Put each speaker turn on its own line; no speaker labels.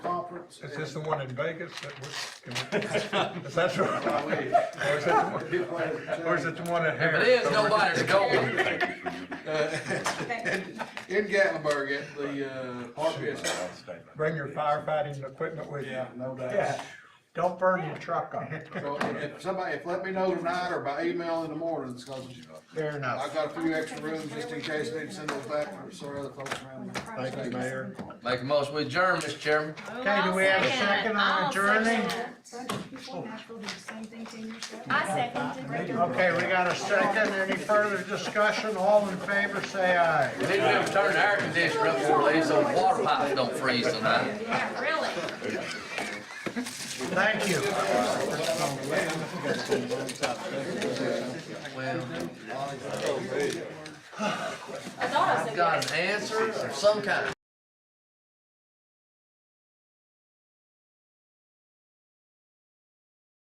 Is this the one in Vegas that was, can we- is that the one? Or is it the one- or is it the one at
If
Harris?
it is, nobody's going.
In Gatlinburg at the, uh, park Yes.
Bring your firefighting equipment with you.
Yeah, no doubt.
Yeah, don't burn your truck on it.
So if if somebody, if let me know tonight or by email in the morning, it's cause
Fair
I've
enough.
got a few extra rooms just in case I need to send those back for some other folks around. me.
Thank you, Mayor.
Make a motion, we adjourn, Mr. Chairman.
Okay, do we have a second on adjourning?
I second it.
Okay, we got a second. Any further discussion? All in favor, say aye.
We need to turn the air conditioner up so these old water pipes don't freeze tonight.
Yeah, really.
Thank you.
Well,
I thought I said yes.
got an answer of some kind.